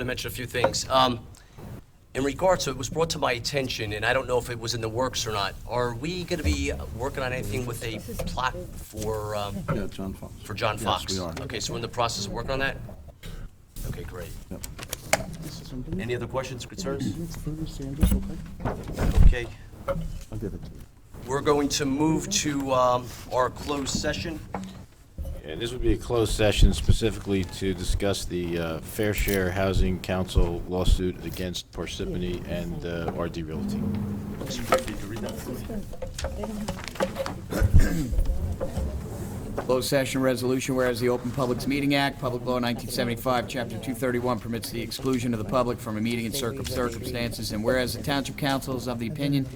to mention a few things. Um, In regards to, it was brought to my attention, and I don't know if it was in the works or not, are we going to be working on anything with a plot for, um, Yeah, John Fox. for John Fox? Yes, we are. Okay, so we're in the process of working on that? Okay, great. Yep. Any other questions, concerns? I'll Okay. give it to you. We're going to move to um, our closed session. And this would be a closed session specifically to discuss the uh, Fair Share Housing Council lawsuit against Parsippany and uh, RD Realty. Closed session resolution, whereas the Open Publics Meeting Act, Public Law 1975, Chapter 231 permits the exclusion of the public from a meeting in circum- circumstances, and whereas the Township Council is of the opinion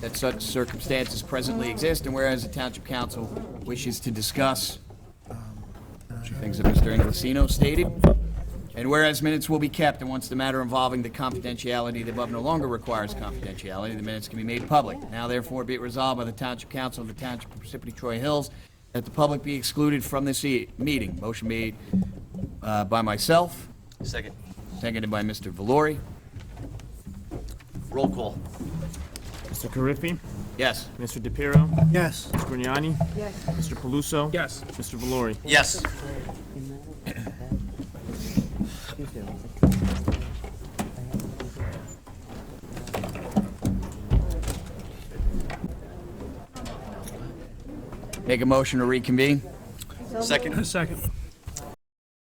that such circumstances presently exist, and whereas the Township Council wishes to discuss um, uh, things that Mr. Inglesino stated, and whereas minutes will be kept, and once the matter involving the confidentiality of the above no longer requires confidentiality, the minutes can be made public. Now therefore be it resolved by the Township Council of the Township of Parsippany Troy Hills that the public be excluded from this e- meeting. Motion made uh, by myself, Second. seconded by Mr. Valori. Roll call. Mr. Carriffy? Yes. Mr. DePiero? Yes. Ms. Grignani? Yes. Mr. Paluso? Yes. Mr. Valori? Yes. Make a motion to reconvene. Second. Second.